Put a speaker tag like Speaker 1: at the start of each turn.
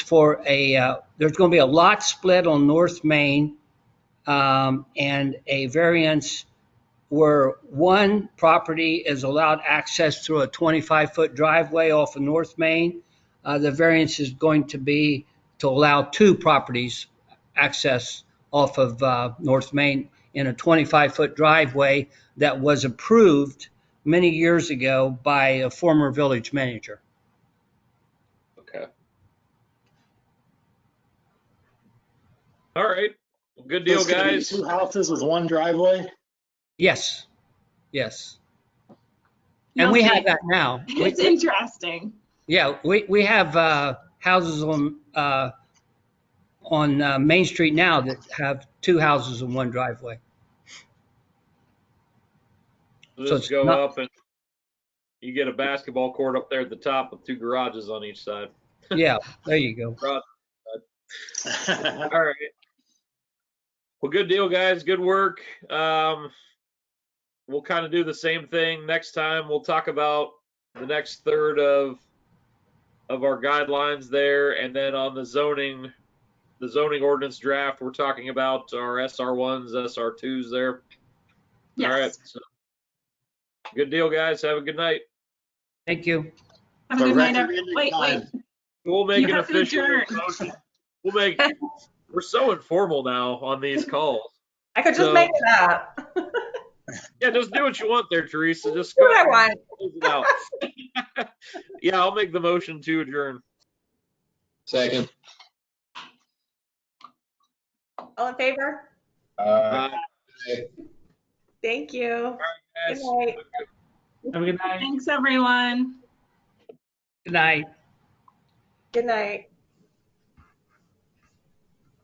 Speaker 1: for a, uh, there's going to be a lot split on North Main um, and a variance where one property is allowed access through a 25-foot driveway off of North Main. Uh, The variance is going to be to allow two properties access off of uh, North Main in a 25-foot driveway that was approved many years ago by a former village manager.
Speaker 2: Okay. All right. Well, Good deal,
Speaker 3: It's gonna be
Speaker 2: guys.
Speaker 3: Two houses with one driveway?
Speaker 1: Yes, yes. And we have that now. We-
Speaker 4: It's interesting.
Speaker 1: Yeah, we, we have uh, houses on, uh, on uh, Main Street now that have two houses and one driveway. so
Speaker 2: Just
Speaker 1: it's
Speaker 2: go
Speaker 1: not-
Speaker 2: up and you get a basketball court up there at the top with two garages on each side.
Speaker 1: Yeah, there you go.
Speaker 2: All right. Well, good deal, guys. Good work. Um, we'll kind of do the same thing next time. We'll talk about the next third of of our guidelines there, and then on the zoning, the zoning ordinance draft, we're talking about our SR ones, SR twos there. All right.
Speaker 4: Yes.
Speaker 2: so- Good deal, guys. Have a good night.
Speaker 1: Thank you.
Speaker 4: Have a good night,
Speaker 3: Directly
Speaker 4: everyone.
Speaker 3: in
Speaker 4: Wait, wait.
Speaker 3: time.
Speaker 2: We'll make
Speaker 4: You
Speaker 2: an
Speaker 4: have to
Speaker 2: official.
Speaker 4: adjourn.
Speaker 2: motion. We'll make. We're so informal now on these calls.
Speaker 5: I could just
Speaker 2: So-
Speaker 5: make it up.
Speaker 2: Yeah, just do what you want there, Teresa. Just
Speaker 5: Do
Speaker 2: go.
Speaker 5: what I want.
Speaker 2: close it out. yeah, I'll make the motion to adjourn.
Speaker 6: Second.
Speaker 5: All in favor?
Speaker 6: Uh,
Speaker 2: Uh,
Speaker 5: Thank you. Good
Speaker 2: guys,
Speaker 5: night.
Speaker 4: Thanks, everyone.
Speaker 1: Good night.
Speaker 5: Good night.